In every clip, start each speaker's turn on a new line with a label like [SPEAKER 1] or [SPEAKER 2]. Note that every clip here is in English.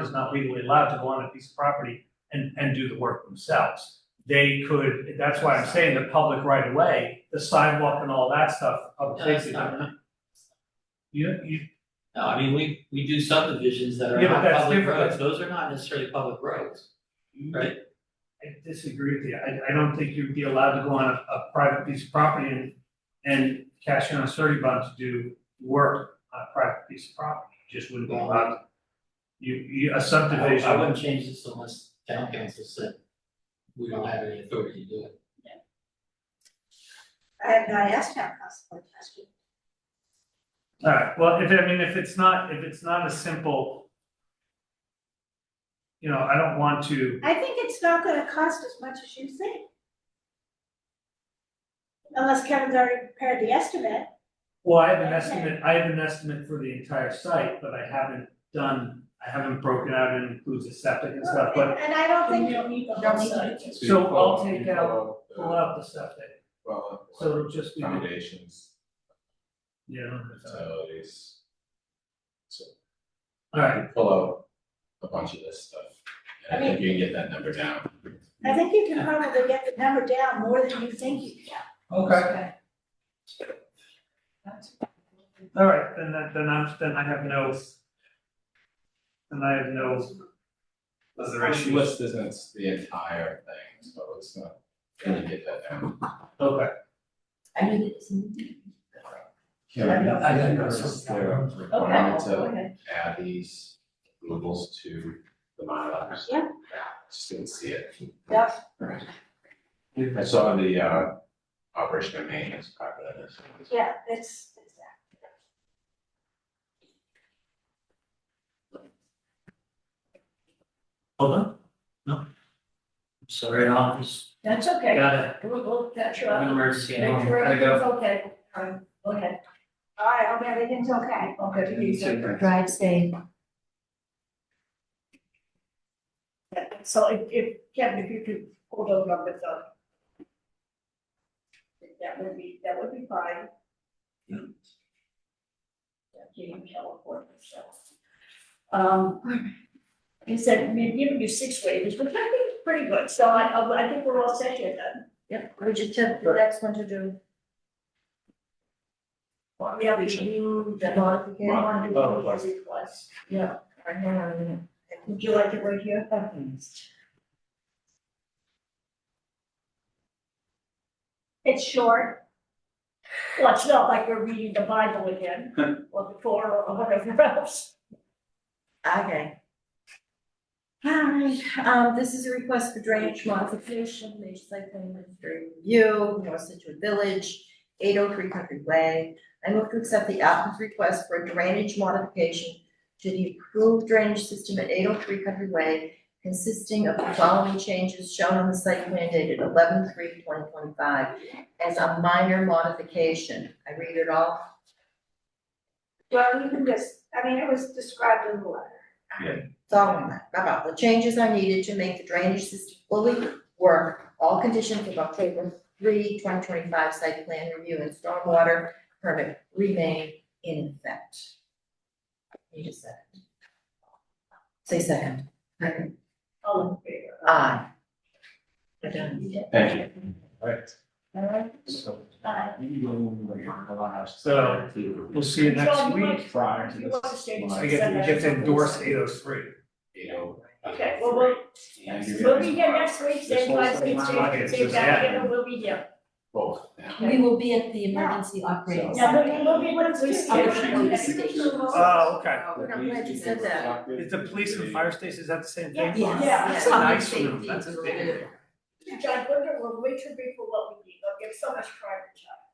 [SPEAKER 1] is not legally allowed to go on a piece of property and, and do the work themselves. They could, that's why I'm saying the public right of way, the sidewalk and all that stuff, public
[SPEAKER 2] No, that's
[SPEAKER 1] safety.
[SPEAKER 2] not-
[SPEAKER 1] You, you,
[SPEAKER 2] No, I mean, we, we do subdivisions that are
[SPEAKER 1] Yeah, but
[SPEAKER 2] not
[SPEAKER 1] that's
[SPEAKER 2] public
[SPEAKER 1] different.
[SPEAKER 2] roads, those are not necessarily public roads, right?
[SPEAKER 1] I disagree with you. I, I don't think you'd be allowed to go on a, a private piece of property and, and cash in on a survey bond to do work on a private piece of property. You Just wouldn't be allowed. You, you, a
[SPEAKER 2] I-
[SPEAKER 1] subdivision.
[SPEAKER 2] I wouldn't change this unless town council said we don't have any authority to do it.
[SPEAKER 3] I have not asked town council a question.
[SPEAKER 1] Alright, well, if, I mean, if it's not, if it's not a simple. You know, I don't want to,
[SPEAKER 3] I think it's not gonna cost as much as you think. Unless Kevin's already prepared the estimate,
[SPEAKER 1] well, I have an estimate, I have an estimate for the entire site, but I haven't done, I haven't broken out and includes a septic and stuff, but.
[SPEAKER 3] and I don't think.
[SPEAKER 4] We don't need the
[SPEAKER 3] Don't
[SPEAKER 4] whole
[SPEAKER 3] need
[SPEAKER 4] site.
[SPEAKER 3] it.
[SPEAKER 1] So I'll take out- Pull
[SPEAKER 5] Well,
[SPEAKER 1] out the septic, so it'll just be,
[SPEAKER 5] uh, accommodations,
[SPEAKER 1] you know,
[SPEAKER 5] utilities. So
[SPEAKER 1] alright,
[SPEAKER 5] you pull out a bunch of this stuff, and I think you can get that number down.
[SPEAKER 3] I think you can probably get the number down more than you think you can.
[SPEAKER 1] okay, alright, then that, then I'm, then I have no. Then I have no,
[SPEAKER 5] Is there issue? List isn't the entire thing, so it's not, gonna get that down.
[SPEAKER 1] okay.
[SPEAKER 4] I mean, it's.
[SPEAKER 5] Karen,
[SPEAKER 4] Yeah, I think that's-
[SPEAKER 5] is there a requirement to add these removals to the MyLars?
[SPEAKER 3] Yeah.
[SPEAKER 5] Just didn't see it.
[SPEAKER 3] Yeah.
[SPEAKER 5] Alright. I saw the uh operation and maintenance part of this.
[SPEAKER 3] Yeah, it's, it's that.
[SPEAKER 2] Hold on, no. I'm Sorry, I just
[SPEAKER 4] That's okay,
[SPEAKER 2] got a,
[SPEAKER 4] we'll, we'll catch you
[SPEAKER 2] an
[SPEAKER 4] up,
[SPEAKER 2] emergency at
[SPEAKER 4] make
[SPEAKER 2] home,
[SPEAKER 4] sure
[SPEAKER 2] gotta go.
[SPEAKER 4] everything's okay, um, go ahead,
[SPEAKER 3] all right, hope everything's okay.
[SPEAKER 4] okay, you take care.
[SPEAKER 6] Drive safe.
[SPEAKER 4] So if, if, Kevin, if you could pull those numbers up. That would be, that would be fine. That gave me hell for myself. Um, he said, we've given you six waivers, which I think is pretty good, so I, I I think we're all set here then.
[SPEAKER 6] Yep, we just have the next one to do.
[SPEAKER 4] We have reviewed the modification, one of the
[SPEAKER 5] Modification.
[SPEAKER 4] requests.
[SPEAKER 6] Yeah. Right, hang on a minute.
[SPEAKER 4] Would you like it right here?
[SPEAKER 3] It's short,
[SPEAKER 4] Well, it's not like we're reading the Bible again, or the Torah, or whatever else.
[SPEAKER 6] Okay. All right, um, this is a request for drainage modification, major site plan administrative review, North Situate Village, eight oh three Country Way. I move to accept the applicant's request for a drainage modification to the approved drainage system at eight oh three Country Way, consisting of the following changes shown on the site plan dated 11-3-2025 as a minor modification. I read it all.
[SPEAKER 3] well, you can just, I mean, it was described in the letter.
[SPEAKER 6] following that, about the changes are needed to make the drainage system fully work, all conditions of October 3, 2025 site plan review and stormwater permit remain in effect. Need a second. Say second.
[SPEAKER 4] All in favor?
[SPEAKER 6] Aye. We're done.
[SPEAKER 5] Thank you. Right.
[SPEAKER 4] All right, bye.
[SPEAKER 1] So, We'll see you next
[SPEAKER 4] John, you
[SPEAKER 1] week.
[SPEAKER 4] might-
[SPEAKER 5] prior to
[SPEAKER 4] you want to
[SPEAKER 5] this,
[SPEAKER 4] stay-
[SPEAKER 5] well,
[SPEAKER 1] I get, you get to endorse eight oh three.
[SPEAKER 5] You know.
[SPEAKER 4] Okay, well, we'll,
[SPEAKER 5] And you're
[SPEAKER 4] we'll
[SPEAKER 5] gonna-
[SPEAKER 4] be here next week, same time, same station, same time, you know, we'll be here.
[SPEAKER 5] Both now.
[SPEAKER 7] We will be at the emergency operating.
[SPEAKER 4] Yeah, but we'll be at the police
[SPEAKER 5] Yeah,
[SPEAKER 4] station.
[SPEAKER 5] she-
[SPEAKER 4] next week.
[SPEAKER 1] Oh, okay.
[SPEAKER 6] I'm glad you said that.
[SPEAKER 1] Is the police and fire station, is that the same thing?
[SPEAKER 4] Yeah.
[SPEAKER 1] That's a
[SPEAKER 6] Yes.
[SPEAKER 1] nice room,
[SPEAKER 6] Safety.
[SPEAKER 1] that's a big room.
[SPEAKER 4] John, we're, we're way too big for what we need, I'll give so much private time.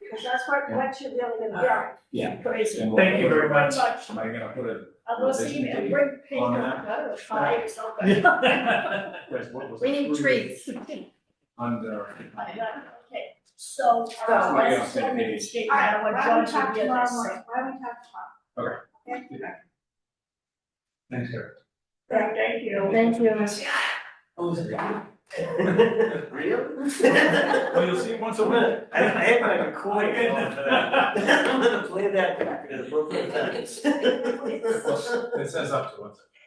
[SPEAKER 3] Because that's what, what you're really gonna do.
[SPEAKER 5] Yeah.
[SPEAKER 4] Crazy.
[SPEAKER 5] And we'll-
[SPEAKER 1] Thank you very much.
[SPEAKER 5] Am I gonna put a,
[SPEAKER 4] I will see you, and bring paint,
[SPEAKER 5] On
[SPEAKER 4] I
[SPEAKER 5] that?
[SPEAKER 4] don't know, five or something.
[SPEAKER 5] where's what was
[SPEAKER 6] We need
[SPEAKER 5] approved
[SPEAKER 6] trees.
[SPEAKER 5] Under.
[SPEAKER 4] I got it, Okay, so,
[SPEAKER 5] That's
[SPEAKER 4] uh,
[SPEAKER 5] what I
[SPEAKER 4] let's
[SPEAKER 5] said,
[SPEAKER 4] send
[SPEAKER 5] maybe.
[SPEAKER 4] the state,
[SPEAKER 3] All
[SPEAKER 4] I
[SPEAKER 3] right,
[SPEAKER 4] want
[SPEAKER 3] why don't
[SPEAKER 4] John
[SPEAKER 3] we talk
[SPEAKER 4] to be
[SPEAKER 3] tomorrow
[SPEAKER 4] at
[SPEAKER 3] morning, why don't we talk tomorrow? Okay. Okay.
[SPEAKER 1] Thanks, Eric.
[SPEAKER 4] Thank you.
[SPEAKER 6] Thank you.
[SPEAKER 8] Well, you'll see it once a week. I I hate when I get caught for that. I'm gonna play that back at appropriate times.
[SPEAKER 5] It says up to once.